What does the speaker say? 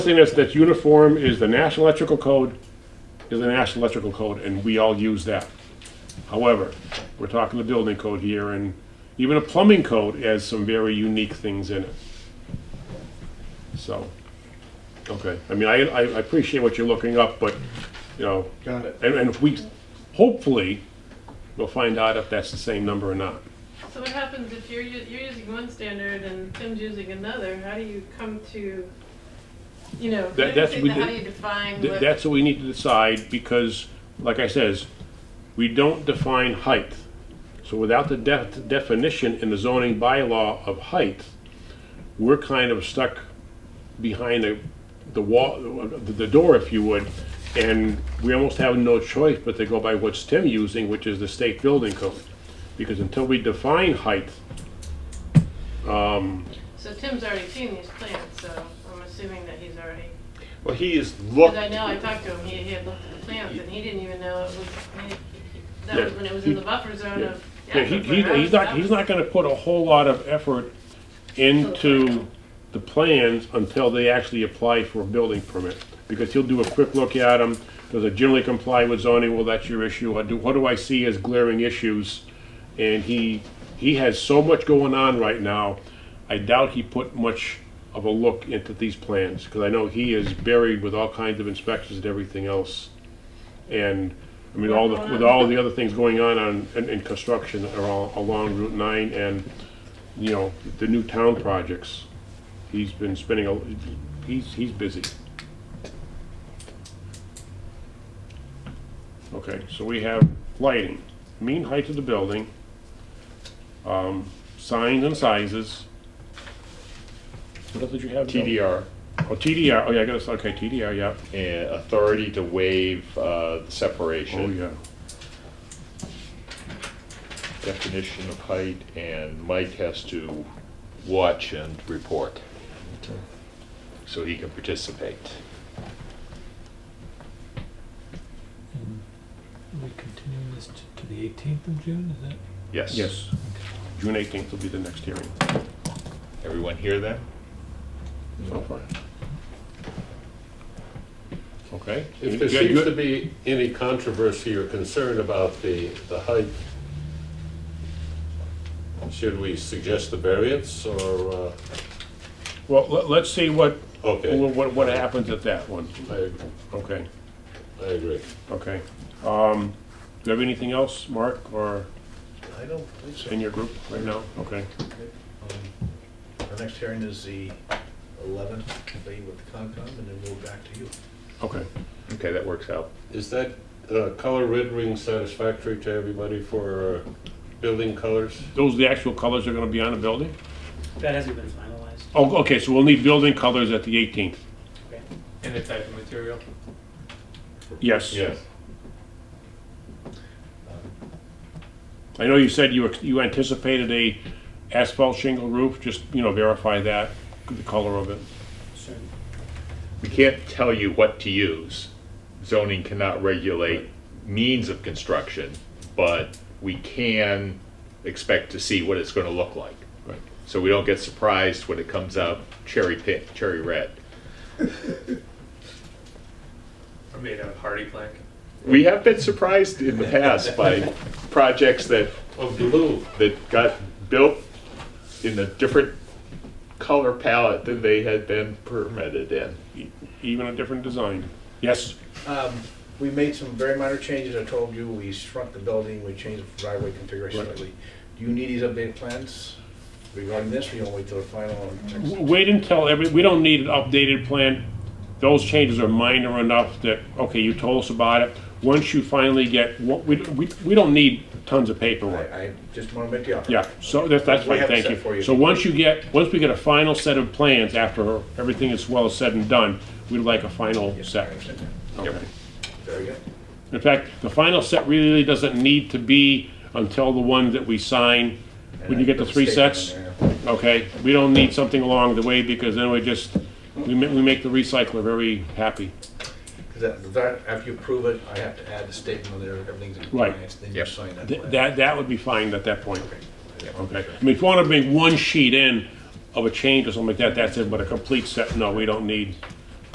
thing that's, that's uniform is the National Electrical Code, is the National Electrical Code, and we all use that. However, we're talking the building code here, and even a plumbing code has some very unique things in it. So, okay, I mean, I, I I appreciate what you're looking up, but, you know, Got it. and, and if we, hopefully, we'll find out if that's the same number or not. So what happens if you're, u- you're using one standard and Tim's using another? How do you come to, you know, That- that's- we how do did- you define Th- what? That's what we need to decide, because, like I says, we don't define height. So without the def- definition in the zoning bylaw of height, we're kind of stuck behind the, the wall, the, the door, if you would, and we almost have no choice but to go by what's Tim using, which is the state building code. Because until we define height, um, So Tim's already seen these plans, so I'm assuming that he's already, Well, he is because looked. I know I talked to him, he, he had looked at the plans and he didn't even know it was, he- he- that Yeah, was when it was he- in the buffer zone of. Yeah, he, he, aquifer. he's not, he's not gonna put a whole lot of effort into the plans until they actually apply for a building permit. Because he'll do a quick look at them, does it generally comply with zoning, well, that's your issue, I do, what do I see as glaring issues? And he, he has so much going on right now, I doubt he put much of a look into these plans, cause I know he is buried with all kinds of inspections and everything else. And, I mean, all, the with all the other things going on on, in, in construction are all along Route nine and, you know, the new town projects. He's been spending a, he's, he's busy. Okay, so we have lighting, mean height of the building, um, signs and sizes. What else did you have? Bill? TDR Oh, TDR, oh yeah, I got to, okay, TDR, yeah, oh, and uh, authority to waive uh, the separation, oh yeah. definition of height, and Mike has to watch and report so he can participate. And we continuing this t- to the 18th of June, is that? Yes. Yes. June eighteenth will be the next hearing, Everyone hear that? so far. Okay. If there You- seems you- to be any controversy or concern about the, the height, should we suggest the variance or, uh, Well, let, let's see what, okay, what, what- what happens at that one. I, Okay, I agree. okay. Um, do you have anything else, Mark, or I don't believe so. in your group right now? Okay, um, Our next hearing is the 11th, be with Concom, and then we'll back to you. okay. Okay, that works out. Is that uh, color rendering satisfactory to everybody for uh, building colors? Those, the actual colors are gonna be on the building? That hasn't been finalized. Oh, okay, so we'll need building colors at the eighteenth. And the type of material? Yes. I know you said you, ex- you anticipated a asphalt shingle roof, just, you know, verify that, the color of it. Sure. We can't tell you what to use. Zoning cannot regulate means of construction, but we can expect to see what it's going to look like. Right. So we don't get surprised when it comes out cherry pink, cherry red. Or made out of hardy plank? We have been surprised in the past by projects that, Of blue? that got built in a different color palette than they had been permitted in. e, Even a different design. Yes, Um, We made some very minor changes, I told you, we shrunk the building, we changed the driveway configuration Right. slightly. Do you need these updated plans regarding this, or you want to wait till the final? and W- next- wait until every, we don't need an updated plan. Those changes are minor enough that, okay, you told us about it. Once you finally get, what, we, we, we don't need tons of I paperwork. I just want to make the offer. Yeah, so that's, that's We fine, have it thank set for you. you. So once you get, once we get a final set of plans after everything is well said and done, we'd like a final Yes, I set. understand that. Okay. Very good. In fact, the final set really doesn't need to be until the one that we sign. When you get the Put a three statement sets, in there. Okay, we don't need something along the way because then we just, we make, we make the recycler very happy. 'Cause that- that- after you approve it, I have to add the statement on there, everything's in Right. compliance, then you Yep. sign that. Th- plan. That, that would be fine at that point. Okay, I mean, if you wanna bring one sheet in of a change or something like that, that's it, but a complete set, no, we don't need